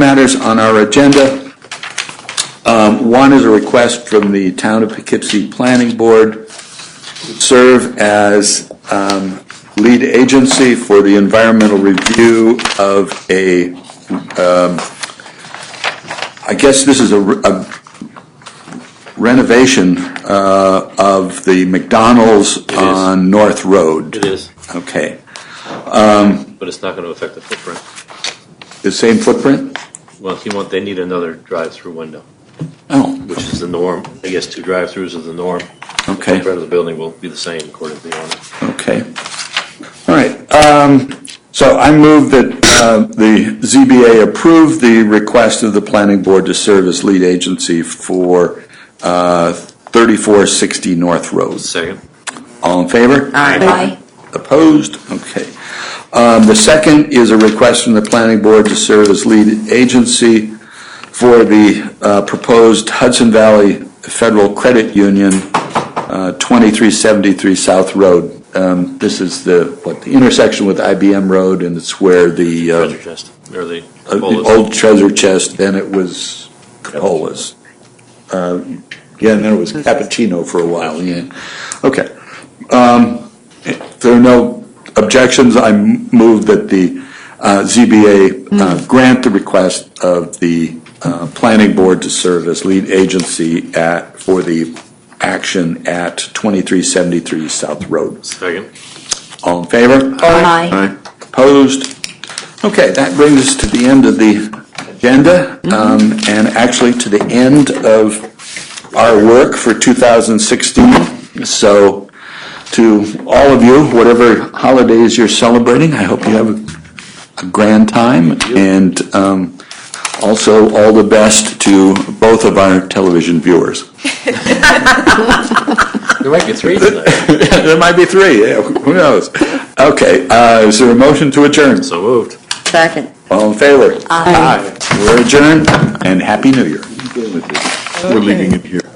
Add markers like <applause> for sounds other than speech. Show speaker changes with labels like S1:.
S1: matters on our agenda. Um, One is a request from the Town of Poughkeepsie Planning Board to serve as um, lead agency for the environmental review of a, um, I guess this is a re- a renovation uh, of the McDonald's
S2: is.
S1: on North Road.
S2: It is,
S1: Okay,
S2: but it's not going to affect the footprint.
S1: the same footprint?
S2: Well, if you want, they need another drive-through window,
S1: Oh,
S2: which is the norm. I guess two drive-throughs is the norm. The
S1: okay.
S2: footprint of the building will be the same according to the owner.
S1: Okay. All right. um, So I move that uh, the ZBA approve the request of the planning board to serve as lead agency for uh, 3460 North Road.
S2: Second,
S1: All in favor?
S3: Aye.
S1: Opposed? Okay. Um, The second is a request from the planning board to serve as lead agency for the uh, proposed Hudson Valley Federal Credit Union, uh, 2373 South Road. Um, This is the, what, the intersection with IBM Road, and it's where the uh,
S2: treasure chest, or the
S1: uh, the
S2: bolus.
S1: old treasure chest, then it was colas. Uh, Yeah, and then it was cappuccino for a while, yeah. Okay. Um, If there are no objections, I move that the uh, ZBA uh, grant the request of the uh, planning board to serve as lead agency at, for the action at 2373 South Road.
S2: Second,
S1: All in favor?
S3: Aye.
S1: Opposed? Okay, that brings us to the end of the agenda, um, and actually to the end of our work for 2016. So to all of you, whatever holidays you're celebrating, I hope you have a grand time, and um, also all the best to both of our television viewers.
S2: there might be <laughs> three tonight.
S1: <laughs> There might be three, yeah, who knows? Okay, uh, is there a motion to adjourn?
S2: So moved.
S3: Second.
S1: All in favor?
S3: Aye.
S1: We're adjourned, and Happy New Year. We're leaving it here.